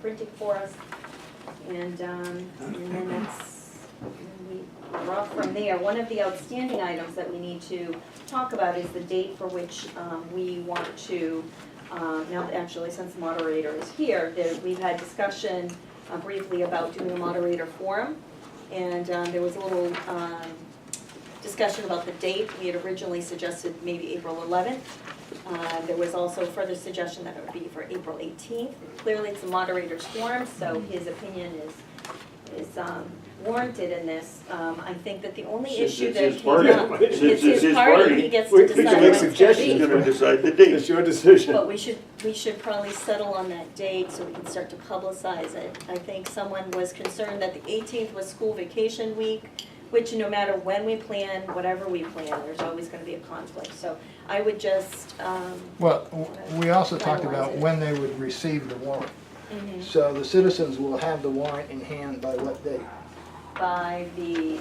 printed for us. And, um, and then that's, and we, we're off from there. One of the outstanding items that we need to talk about is the date for which, um, we want to, um, now, actually, since the moderator is here, that we've had discussion uh, briefly about doing a moderator forum. And, um, there was a little, um, discussion about the date. We had originally suggested maybe April eleventh. Uh, There was also further suggestion that it would be for April 18th. Clearly, it's a moderator's forum, so his opinion is, is um, warranted in this. Um, I think that the only Since issue it's that his he's party. not, Since it's his party, he gets We to can decide make when it's gonna suggestions. He's be. gonna decide the It's date. your decision. But we should, we should probably settle on that date so we can start to publicize it. I think someone was concerned that the 18th was school vacation week, which no matter when we plan, whatever we plan, there's always gonna be a conflict. So I would just, um, Well, w- we also talked Finalize about it. when they would receive the warrant. So the citizens will have the warrant in hand by what date? by the,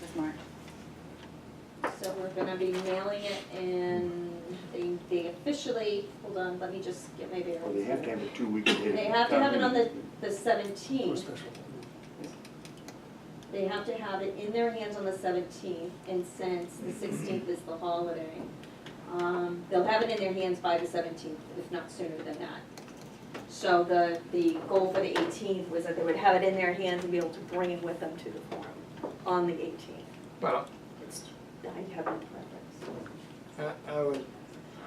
With Mark. so we're gonna be mailing it and they, they officially, hold on, let me just get my Well, they have to bearings. have it two weeks ahead. They have to have it on the, the seventeenth. They have to have it in their hands on the seventeenth and since the sixteenth is the holiday, um, they'll have it in their hands by the seventeenth, if not sooner than that. So the, the goal for the eighteenth was that they would have it in their hands and be able to bring it with them to the forum on the eighteenth. Well, It's, I have no preference. I I would,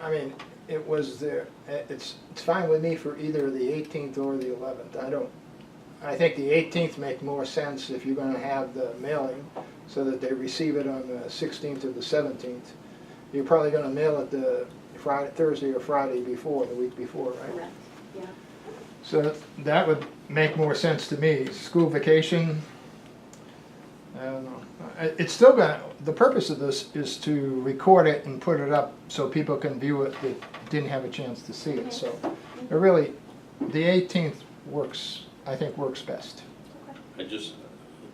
I mean, it was there, eh, it's, it's fine with me for either the 18th or the 11th. I don't, I think the 18th make more sense if you're going to have the mailing so that they receive it on the 16th or the 17th. You're probably going to mail it the Friday, Thursday or Friday before, the week before, right? Correct, yeah. So that would make more sense to me, school vacation, I don't know. I- It's still gonna, the purpose of this is to record it and put it up so people can view it that didn't have a chance to see it, so. It really, the eighteenth works, I think works best. I just,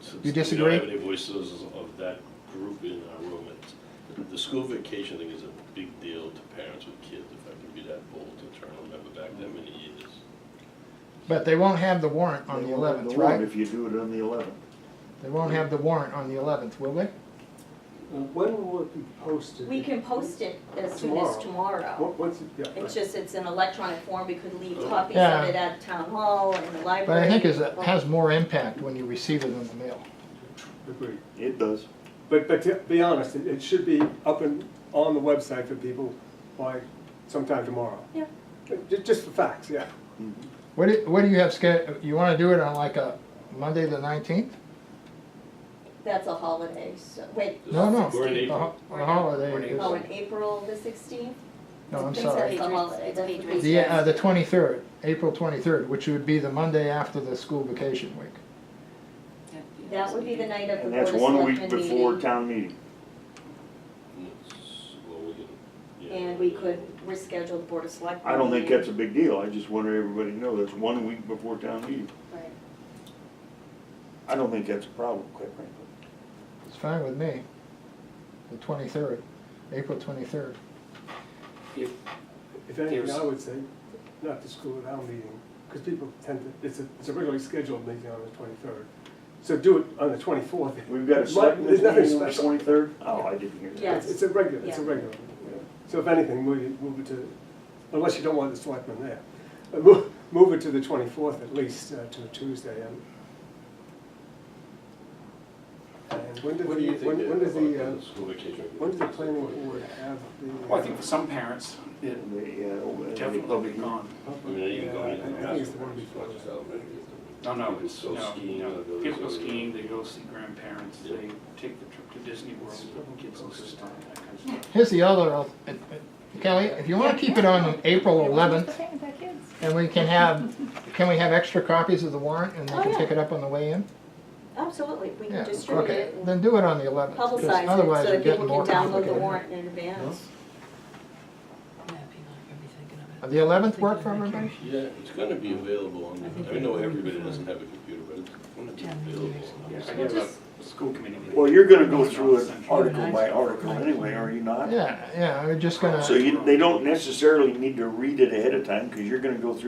since You we disagree? don't have any voices of that group in our room, it's, the school vacation thing is a big deal to parents with kids, if I can be that bold to try and remember back that many years. But they won't have the warrant on the eleventh, right? If you do it on the eleventh. They won't have the warrant on the eleventh, will they? When will it be posted? We can post it as soon as tomorrow. What- What's it, yeah, It's right. just, it's in electronic form, we could leave copies Yeah. of it at town hall and the library. But I think is, it has more impact when you receive it in the mail. agreed. It does. But, but to be honest, it, it should be up and on the website for people by sometime tomorrow. Yeah. Just, just for facts, yeah. What do, what do you have sched, you wanna do it on like a Monday the nineteenth? That's a holiday, so, wait. No, no. We're in The April. ho- Uh-huh. The holiday We're in is, Oh, in April the sixteenth? no, I'm sorry. That's the holiday, It's that's the Patriots' The, uh, weekend. the twenty-third, April twenty-third, which would be the Monday after the school vacation week. That would be the night of the And Board of that's one week Selectmen before meeting. town meeting. And it's- well, we can- yeah. And we could reschedule the Board of Selectmen. I don't think meeting. that's a big deal. I just want everybody to know that's one week before town meeting. Right. I don't think that's a problem, quite frankly. It's fine with me. The twenty-third, April twenty-third. If, If anything, There's- I would say, not the school at our meeting, because people tend to, it's a, it's a regularly scheduled meeting on the twenty-third. So do it on the twenty-fourth. We've got a There's selectmen's nothing meeting on the special. twenty-third? Oh, I didn't hear that. Yes. It's it's a regular, it's a Yeah. regular. So if anything, move it, move it to, unless you don't want the selectmen there, Uh, mo- move it to the twenty-fourth at least, uh, to a Tuesday. And and when did What do you the, think when when does the, about uh, the school vacation? when does the planning board have the? well, I think uh, for some parents, it And they, uh, oh, and they definitely public- gone. public- I mean, they even yeah, go I- into the uh, I think it's the basketball, one before it's that. not just No, no, People it's, go no, skiing, no. uh, those Kids go are- skiing, they go see grandparents, they take the trip to Disney World, kids go see stuff, that kind of stuff. Here's the other, al- uh, uh, Kelly, if you wanna keep it on April eleventh, and we can have, can we have extra copies of the warrant and they Oh, can yeah. pick it up on the way in? Absolutely, we Yeah, can distribute okay. it and Then do it on the eleventh, publicize because it otherwise so you're that getting people more can download complicated. the warrant in advance. Uh, The eleventh work for everybody? Yeah, it's gonna be available on, the- I know everybody doesn't have a computer, but it's gonna be available. on the Yeah, I site. gave up, just- school committee meeting. Well, you're gonna go through it Central. article by article anyway, are you not? Yeah, yeah, I'm just gonna. So you, they don't necessarily need to read it ahead of time, cause you're gonna go through